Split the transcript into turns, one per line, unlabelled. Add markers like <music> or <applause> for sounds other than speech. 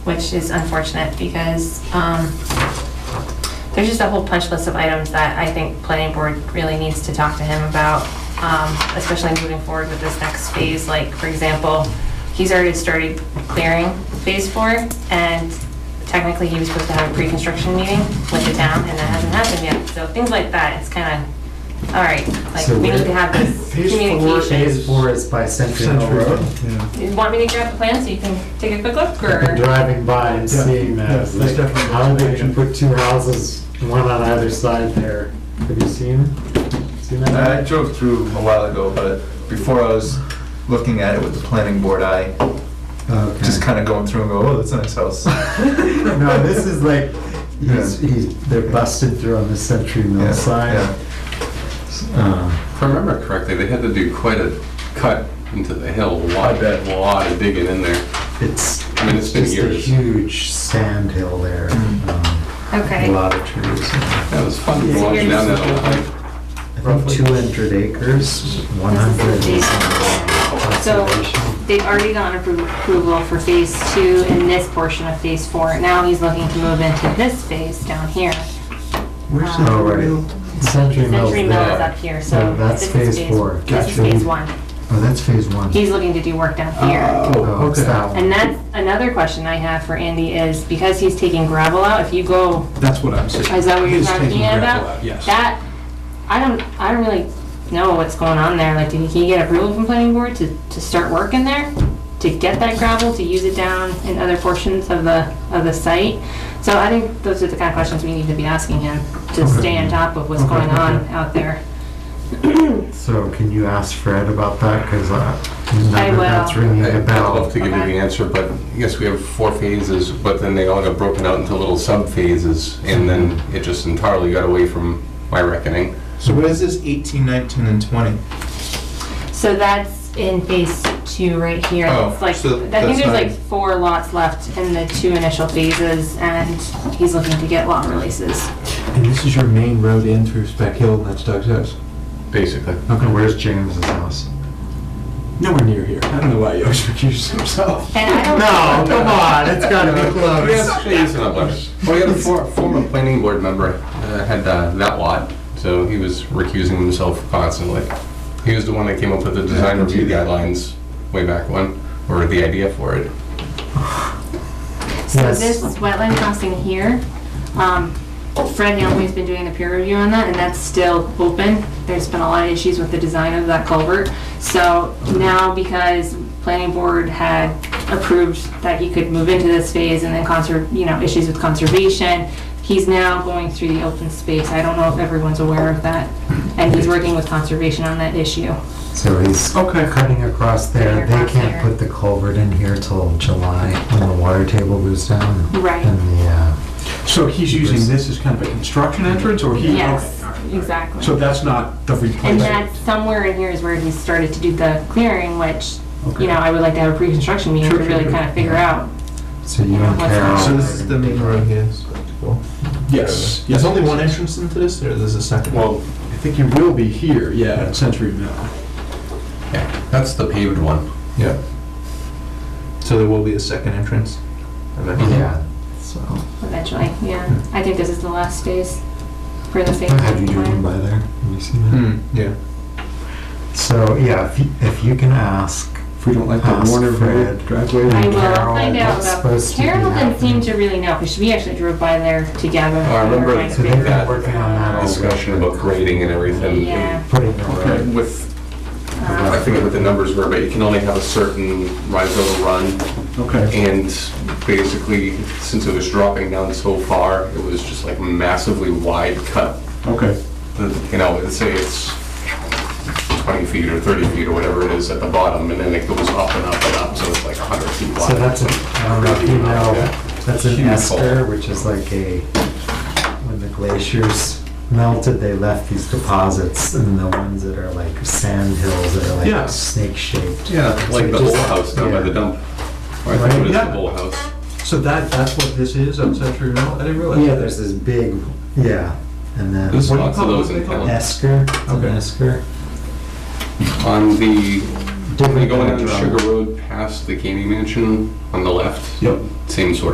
which is unfortunate because um, there's just a whole punch list of items that I think planning board really needs to talk to him about, um, especially moving forward with this next phase. Like, for example, he's already started clearing phase four, and technically he was supposed to have a pre-construction meeting with the town, and that hasn't happened yet. So things like that, it's kind of, all right, like,
So
we need
where-
to have this
Phase four
communication.
Phase four is by Century Mill
Century
Road.
Yeah.
You want me to grab the plan so you can take a quick look,
I've been
or?
driving by and
Yeah,
seeing
yeah,
that.
that's
like,
definitely-
How they can put two houses, one on either side there. Have you seen, seen
I
that?
drove through a while ago, but before I was looking at it with the planning board, I
Uh,
Okay.
just kind of going through and go, oh, that's a nice <laughs> house.
No, this is like, he's,
Yeah.
he's, they're busted through on the Century
Yeah,
Mill side.
yeah.
Uh,
If I remember correctly, they had to do quite a cut into the hill, a lot,
I bet.
a lot of digging in there.
It's,
I mean, it's been
just a
years.
huge sand hill there.
Mm.
Um,
Okay.
A lot of trees.
That was fun walking down that little hike.
I think two hundred acres, one hundred
This is
is
the So-
conservation.
They've already gotten appro- approval for phase two in this portion of phase four. Now he's looking to move into this phase down here.
Where's
Um,
the
Oh,
real-
right. Century Mill's
Century Mill is
there.
up here, so
Yeah, that's
this is
phase
phase,
four.
this is
Gotcha.
phase one.
Oh, that's phase one.
He's looking to do work down here.
Oh, it's that one.
And that's another question I have for Andy is because he's taking gravel out, if you go,
That's what I'm saying.
is that what you're
He's taking
talking
gravel
about?
out, Yes.
That, I don't, I don't really know what's going on there. Like, did he get approval from planning board to, to start work in there? To get that gravel, to use it down in other portions of the, of the site? So I think those are the kind of questions we need to be asking him to stay on top of what's
Okay,
going on
okay.
out there.
So can you ask Fred about that? uh, Because I,
I
remember
will.
that's ringing a
I'd love to
bell.
give you the
Okay.
answer, but I guess we have four phases, but then they all got broken out into little sub-phases, and then it just entirely got away from my reckoning.
So what is this 18, 19, and 20?
So that's in phase two right here.
Oh,
It's like,
so
I think
that's
there's
not-
like four lots left in the two initial phases and he's looking to get lot releases.
And this is your main road in through Spec Hill, and that's Doug's house.
Basically.
Okay, where's James's house?
Nowhere near here. I don't know why <laughs> Yost recused himself.
And I don't.
No, come on, it's gotta be close.
Yes, please, and I'm like, Well, the other for- former planning board member uh, had uh, that lot, so he was recusing himself constantly. He was the one that came up with the design review guidelines way back when, or the idea for it.
So
Yes.
this wetland crossing here, um, Fred Naomi's been doing the peer review on that, and that's still open. There's been a lot of issues with the design of that culvert. So now because planning board had approved that he could move into this phase and then conser, you know, issues with conservation, he's now going through the open space. I don't know if everyone's aware of that. And he's working with conservation on that issue.
So he's cutting across there.
Cutting
They
across
can't
there.
put the culvert in here till July when the water table goes down.
Right.
And the, uh,
So he's using this as kind of a construction entrance, or he?
Yes,
okay, all right.
exactly.
So that's not the
And
replacement?
that somewhere in here is where he started to do the clearing, which,
Okay.
you know, I would like to have a pre-construction meeting to
Sure, sure,
really
sure.
kind of figure out.
so you and
What's that?
Carol.
So this is the main road here. so that's cool.
Yes.
There's
yes.
only one entrance into this, or there's a second?
Well, I think you will be here, yeah, at Century Mill.
Yeah, that's the paved one.
Yeah. So there will be a second entrance? eventually?
Yeah, so.
Eventually, yeah. I think this is the last phase for the phase.
How'd you
one plan.
do by there? Have you seen that?
Hmm, yeah.
So, yeah, if you, if you can ask,
If we don't like the
Ask
Warner
Fred.
Road driveway.
I will
Carol,
find out
what's
about,
supposed to be
Carol didn't seem
happening?
to really know, because we actually drove by there together.
Oh, I remember
We were trying
so
to
they've
figure
been
out-
working on
Oh,
that all
Discussion about grading and everything.
Yeah.
putting it
and
right.
With, I
Um,
forget what the numbers were, but you can only have a certain rise over run.
Okay.
And basically, since it was dropping down so far, it was just like massively wide cut.
Okay.
The- You know, let's say it's 20 feet or 30 feet or whatever it is at the bottom, and then it goes up and up and up, so it's like 100 feet wide.
So that's, a- I don't know if you know, that's an
Huge hole.
esker, which is like a, when the glaciers melted, they left these deposits and the ones that are like sand hills that are
Yeah.
like snake shaped.
Yeah, like the
just-
old house down by
yeah.
the dump. Or I think it was
Right.
the old house.
So that, that's what this is on Century Mill? I didn't realize.
Yeah, there's this big, yeah, and then
There's
What do you
lots of
call it?
those in
What do you
town.
esker, it's an
Okay.
esker.
On the, when you go in on
Different-
Sugar Road past the gaming mansion on the left,
Yep.
same sort of